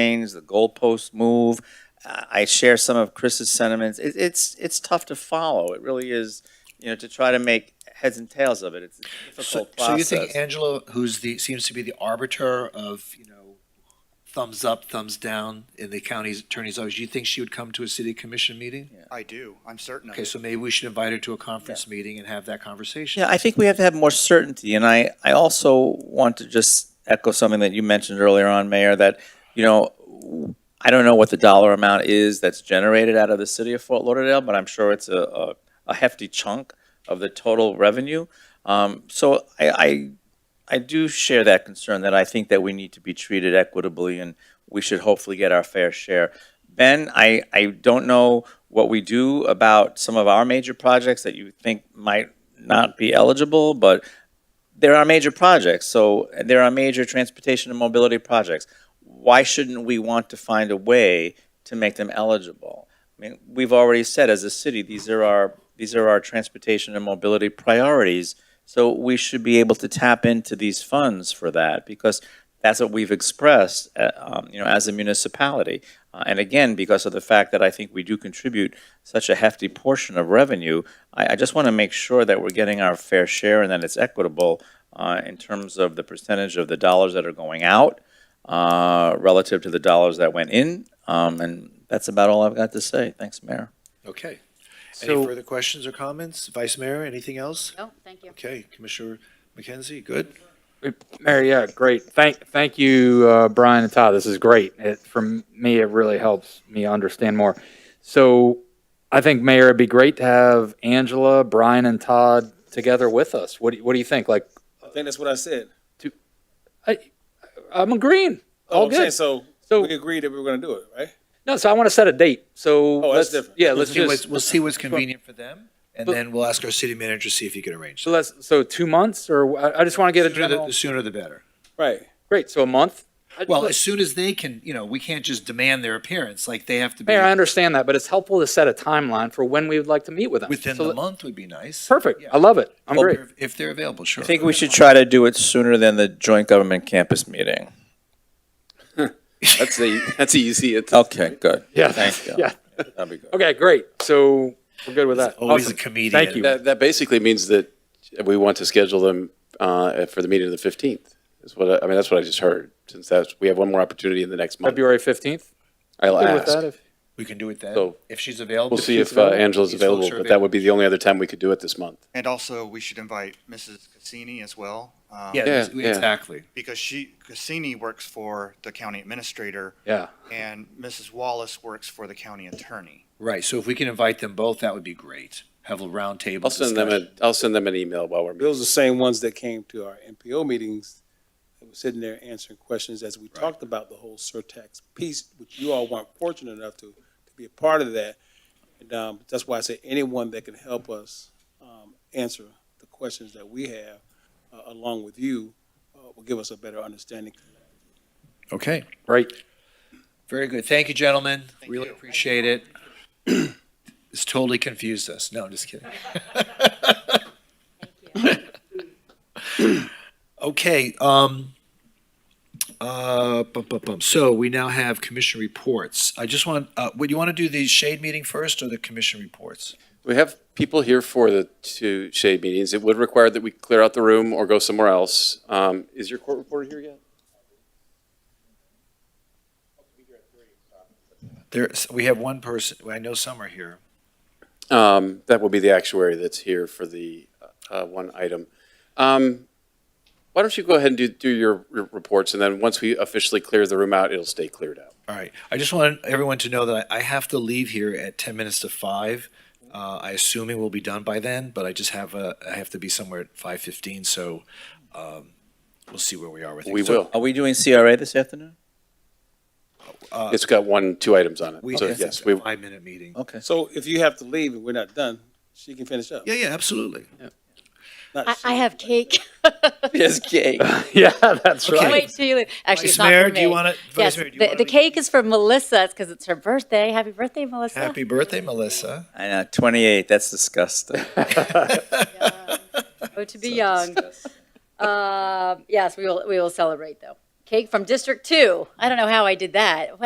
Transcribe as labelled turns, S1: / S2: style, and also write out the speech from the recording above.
S1: change, the goalposts move. Uh, I share some of Chris's sentiments. It, it's it's tough to follow. It really is. You know, to try to make heads and tails of it, it's a
S2: So,
S1: difficult
S2: so you
S1: process.
S2: think Angela, who's the, seems to be the arbiter of, you know, thumbs up, thumbs down in the county's attorney's office, you think she would come to a city commission meeting?
S3: I do. I'm certain of
S2: Okay,
S3: it.
S2: so maybe we should invite her to a conference meeting and have that conversation.
S1: Yeah, I think we have to have more certainty, and I, I also want to just echo something that you mentioned earlier on, Mayor, that, you know, I don't know what the dollar amount is that's generated out of the city of Fort Lauderdale, but I'm sure it's a, a, a hefty chunk of the total revenue. Um, so I, I, I do share that concern that I think that we need to be treated equitably and we should hopefully get our fair share. Ben, I, I don't know what we do about some of our major projects that you think might not be eligible, but there are major projects, so and there are major transportation and mobility projects. Why shouldn't we want to find a way to make them eligible? I mean, we've already said as a city, these are our, these are our transportation and mobility priorities. So we should be able to tap into these funds for that because that's what we've expressed, uh, um, you know, as a municipality. Uh, and again, because of the fact that I think we do contribute such a hefty portion of revenue, I, I just want to make sure that we're getting our fair share and that it's equitable uh, in terms of the percentage of the dollars that are going out uh, relative to the dollars that went in. Um, and that's about all I've got to say. Thanks, Mayor.
S2: Okay. Any
S4: So,
S2: further questions or comments? Vice Mayor, anything else?
S5: No, Oh, thank you.
S2: Okay, Commissioner McKenzie, good?
S4: Mary, yeah, great. Thank, thank you, uh, Brian and Todd. This is great. It, for me, it really helps me understand more. So I think, Mayor, it'd be great to have Angela, Brian, and Todd together with us. What do, you- what do you think? Like,
S6: I think that's what I said.
S4: I'm agreeing. All
S6: Oh, I'm saying,
S4: good.
S6: so,
S4: So-
S6: we agreed that we were going to do it, right?
S4: No, so I want to set a date. So
S6: Oh, that's
S4: let's,
S6: different.
S4: yeah,
S2: We'll
S4: let's
S2: see what's,
S4: just,
S2: we'll see what's convenient for them, and
S4: But-
S2: then we'll ask our city manager, to see if he can arrange.
S4: so let's, so two months or I, I just want to get a
S2: Sooner the-
S4: general.
S2: The sooner the better.
S6: Right.
S4: Great. So a month. I-
S2: Well, as soon as they can, you know, we can't just demand their appearance, like they have to be
S4: Mayor, I understand that, but it's helpful to set a timeline for when we would like to meet with them.
S2: within
S4: So
S2: the
S4: let-
S2: month would be nice.
S4: Perfect.
S2: Yeah.
S4: I love it. I'm
S2: If
S4: great.
S2: they're- If they're available, sure.
S1: I think we should try to do it sooner than the joint government campus meeting.
S6: That's the that's easy. It's
S1: Okay, good.
S4: Yeah.
S1: Thank you.
S4: Yeah.
S1: That'd be good.
S4: Okay, great. So we're good with that.
S2: Always a
S4: Awesome.
S2: comedian.
S4: Thank you.
S7: That, that basically means that we want to schedule them uh, for the meeting of the 15th, is what, I I mean, that's what I just heard, since that's, we have one more opportunity in the next month.
S4: February 15th.
S7: I'll
S4: Good with
S7: ask.
S4: that. if-
S2: We can do it then,
S7: So-
S2: if she's available.
S7: We'll see if uh, Angela's
S2: These folks
S7: available,
S2: are
S7: but that would be the only other time we could do it this month.
S3: And also, we should invite Mrs. Cassini as well. um,
S2: Yeah,
S7: Yeah,
S2: this-
S7: yeah.
S2: exactly.
S3: Because she, Cassini works for the county administrator
S4: Yeah.
S3: and Mrs. Wallace works for the county attorney.
S2: Right, so if we can invite them both, that would be great. Have a round table
S7: I'll send them
S2: discussion.
S7: a, I'll send them an email while we're meeting.
S6: those are the same ones that came to our MPO meetings that were sitting there answering questions as we talked about the whole surtax piece, which you all weren't fortunate enough to, to be a part of that. And um, that's why I say anyone that can help us um, answer the questions that we have uh, along with you uh, will give us a better understanding.
S2: Okay,
S4: Right.
S2: very good. Thank you, gentlemen. Really appreciate it. This totally confused us. No, I'm just kidding. Okay, um, uh, bum, bum, bum. So we now have commission reports. I just want, uh, would you want to do the shade meeting first or the commission reports?
S7: We have people here for the two shade meetings. It would require that we clear out the room or go somewhere else. Um, Is your court reporter here yet?
S2: There's, we have one person, I know some are here.
S7: Um, That will be the actuary that's here for the uh, one item. Um, Why don't you go ahead and do, do your r- reports, and then once we officially clear the room out, it'll stay cleared out.
S2: All right. I just want everyone to know that I I have to leave here at 10 minutes to 5. Uh, I assume it will be done by then, but I just have a, I have to be somewhere at 5:15, so um, we'll see where we are with it.
S7: We
S2: So
S7: will.
S1: Are we doing CRA this afternoon?
S7: It's got one, two items on
S2: We
S7: it. So,
S2: have
S7: yes,
S2: a
S7: we,
S2: five-minute meeting.
S1: Okay.
S6: So if you have to leave and we're not done, she can finish up.
S2: Yeah, yeah, absolutely.
S6: Not
S5: I,
S6: she.
S5: I have cake.
S1: Yes, cake.
S4: Yeah, that's
S2: Okay.
S4: right.
S5: Wait till you leave. Actually,
S2: Vice
S5: it's not
S2: Mayor,
S5: for
S2: do you
S5: me.
S2: wanna- Vice
S5: Yes,
S2: Mayor, do you
S5: the,
S2: wanna
S5: the
S2: read-
S5: cake is for Melissa. It's because it's her birthday. Happy birthday, Melissa.
S2: Happy birthday, Melissa.
S1: I know, 28, that's disgusting.
S5: Uh, Oh, to be young. Um, yes, we will. We will celebrate though. cake from District Two. I don't know how I did that.